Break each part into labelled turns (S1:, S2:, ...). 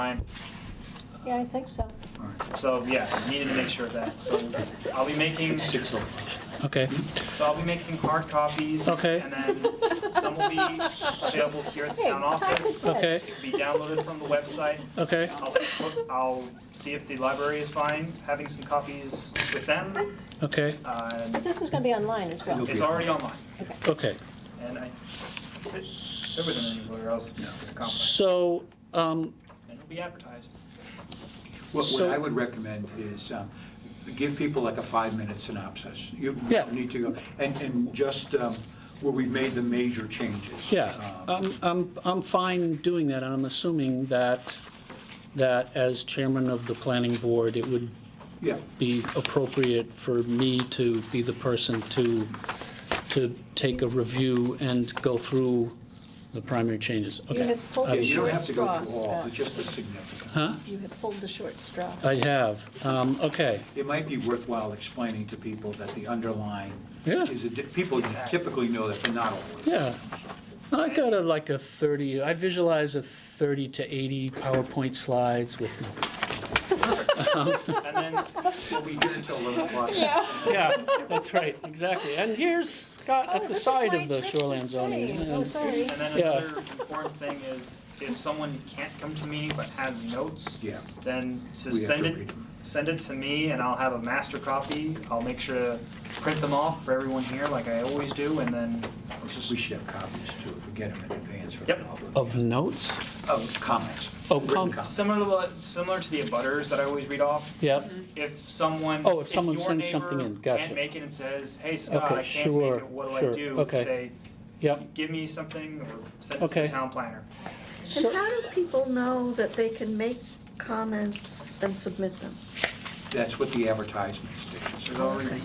S1: time.
S2: Yeah, I think so.
S1: So yeah, needed to make sure of that. So I'll be making, so
S3: Okay,
S1: I'll be making hard copies.
S3: Okay.
S1: And then some will be available here at the
S2: Hey,
S1: town office.
S2: time to
S3: okay,
S1: It'll be downloaded from the website.
S3: okay,
S1: I'll, s- I'll see if the library is fine having some copies with them.
S3: okay,
S1: Um,
S2: This is gonna be online as well.
S1: It's already online,
S3: okay.
S1: and I, there wasn't anywhere else to accomplish.
S3: So, um,
S1: And it'll be advertised.
S4: What, what
S3: So-
S4: I would recommend is, um, give people like a five-minute synopsis. You you
S3: Yeah.
S4: need to go, and, and just um, where we've made the major changes.
S3: yeah, Uh,
S4: Um,
S3: I'm, I'm, I'm fine doing that, and I'm assuming that, that as chairman of the planning board, it would
S4: Yeah,
S3: be appropriate for me to be the person to, to take a review and go through the primary changes,
S2: You
S3: okay?
S2: have pulled
S4: Yeah,
S2: the
S4: you don't
S2: short
S4: have to go
S2: straw,
S4: through all,
S2: Scott.
S4: but just the significant.
S3: Huh?
S2: You have pulled the short straw.
S3: I have, um, okay,
S4: It might be worthwhile explaining to people that the underlying
S3: Yeah.
S4: is, a di- people typically know that they're not all.
S3: yeah. I got a, like a 30, I visualize a 30 to 80 PowerPoint slides with
S1: And then
S4: We'll be here until 11 o'clock.
S3: Yeah, that's right, exactly. And here's Scott at the side of the shoreline zoning.
S2: Oh, sorry.
S1: And then
S3: Yeah.
S1: another important thing is, if someone can't come to meeting but has notes,
S4: Yeah.
S1: then
S4: We
S1: just
S4: have
S1: send
S4: to
S1: it,
S4: read 'em.
S1: send it to me and I'll have a master copy. I'll make sure to print them off for everyone here like I always do and then I'll
S4: We
S1: just,
S4: should have copies too, if we get them in advance for the
S1: Yep.
S4: public.
S3: Of notes?
S4: Of comments.
S3: Oh,
S4: Written
S3: com-
S1: similar to, the- similar to the abutters that I always read off.
S3: Yep,
S1: If someone.
S3: Oh, if someone
S1: your
S3: sends something
S1: neighbor
S3: in, gotcha.
S1: Can't make it and says, hey Scott,
S3: Okay,
S1: I can't make
S3: sure,
S1: it, what do I
S3: sure,
S1: do?
S3: okay.
S1: Say,
S3: yep.
S1: give me something or send it to the
S3: Okay.
S1: town planner.
S5: And
S3: So,
S5: how do people know that they can make comments and submit them?
S4: That's what the advertisements do.
S1: There's already,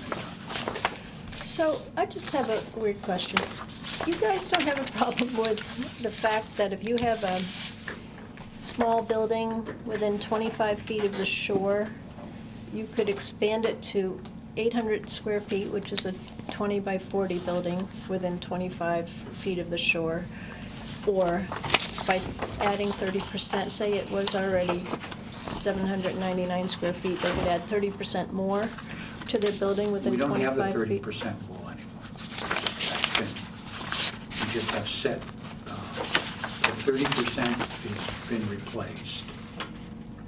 S2: So I just have a weird question. You guys don't have a problem with the fact that if you have a small building within 25 feet of the shore, you could expand it to 800 square feet, which is a 20 by 40 building within 25 feet of the shore, or by adding 30%, say it was already 799 square feet, they could add 30% more to their building
S4: We
S2: within 25
S4: don't
S2: feet.
S4: have the thirty percent rule anymore. That's been- We just have set, uh, the thirty percent has been replaced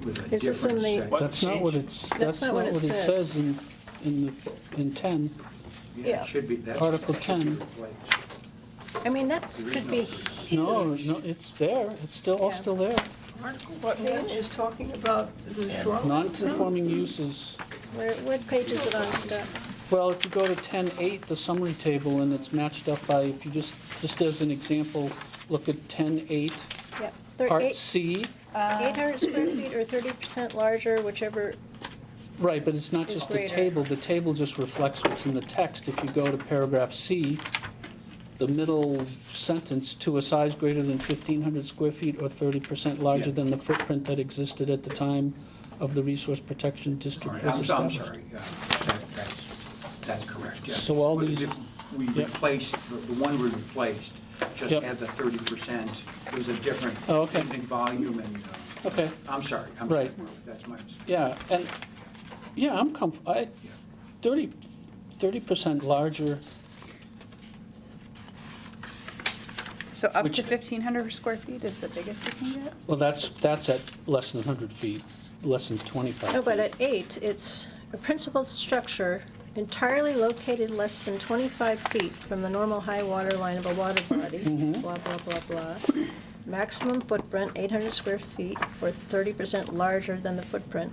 S4: with a
S2: Is this in
S4: different
S2: the-
S4: set.
S1: What?
S3: that's not what it's, that's not what it says in, in the, in 10.
S4: Yeah,
S2: yeah.
S4: it should be, that's.
S3: Article
S4: that should be
S3: 10.
S4: replaced.
S2: I mean, that could be
S3: No,
S2: huge.
S3: no, it's there, it's still, all still there.
S6: What Nan is talking about, the shoreline?
S3: Non-conforming uses,
S2: Where, what page is it on, Scott?
S3: well, if you go to 10.8, the summary table, and it's matched up by, if you just, just as an example, look at 10.8,
S2: Yep,
S3: Part
S2: eight
S3: C.
S2: hundred square feet or thirty percent larger, whichever,
S3: Right, but it's not
S2: is
S3: just the
S2: greater.
S3: table, the table just reflects what's in the text. If you go to paragraph C, the middle sentence, "To a size greater than 1,500 square feet or 30% larger
S4: Yeah.
S3: than the footprint that existed at the time of the Resource Protection
S4: All
S3: District
S4: right,
S3: was
S4: I'm, I'm
S3: established."
S4: sorry, yeah, that, that's, that's correct, yeah.
S3: So all
S4: We-
S3: these-
S4: We
S3: Yep.
S4: replaced, the the one we replaced, just
S3: Yep.
S4: had the thty percent, it was a different.
S3: Oh, okay.
S4: in volume and, uh,
S3: Okay,
S4: I'm sorry, I'm sorry,
S3: Right.
S4: that's my mistake.
S3: yeah, and, yeah, I'm comf, I, 30, 30% larger,
S7: So up
S3: Which-
S7: to 1,500 square feet is the biggest you can get?
S3: well, that's, that's at less than 100 feet, less than 25 feet.
S2: no, Oh, but at eight, it's a principal structure entirely located less than twenty-five feet from the normal high water line of a water body, blah, blah, blah, blah. Maximum footprint, eight hundred square feet or thirty percent larger than the footprint.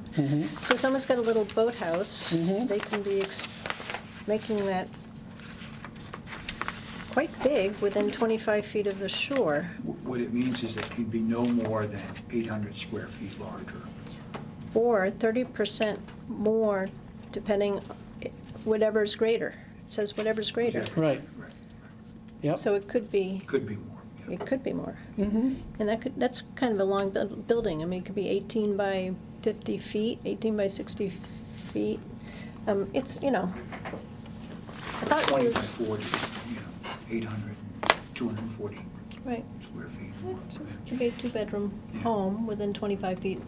S2: So if someone's got a little boathouse, they can be ex- making that quite big within twenty-five feet of the shore.
S4: Wh- What it means is it can be no more than 800 square feet larger.
S2: or thirty percent more, depending, whatever's greater. It says whatever's greater.
S3: Right, yep,
S2: So it could be,
S4: Could be more. yeah.
S2: it could be more. And that could, that's kind of a long buil- building. I mean, it could be eighteen by fifty feet, eighteen by sixty feet. Um, it's, you know. I thought
S4: 20
S2: we,
S4: by 40, you know, 800, 240
S2: right,
S4: square feet.
S2: It's a big two-bedroom home within 25 feet